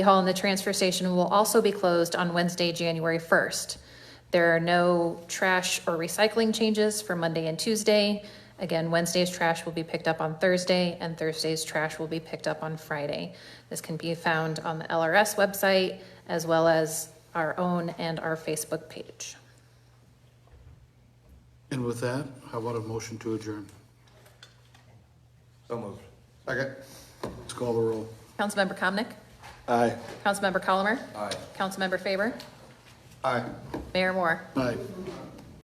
Hall and the transfer station will also be closed on Wednesday, January 1st. There are no trash or recycling changes for Monday and Tuesday. Again, Wednesday's trash will be picked up on Thursday, and Thursday's trash will be picked up on Friday. This can be found on the LRS website, as well as our own and our Facebook page. And with that, how about a motion to adjourn? So moved. Second. Let's call the roll. Councilmember Comnic, Aye. Councilmember Colomer, Aye. Councilmember Faber, Aye. Mayor Moore. Aye.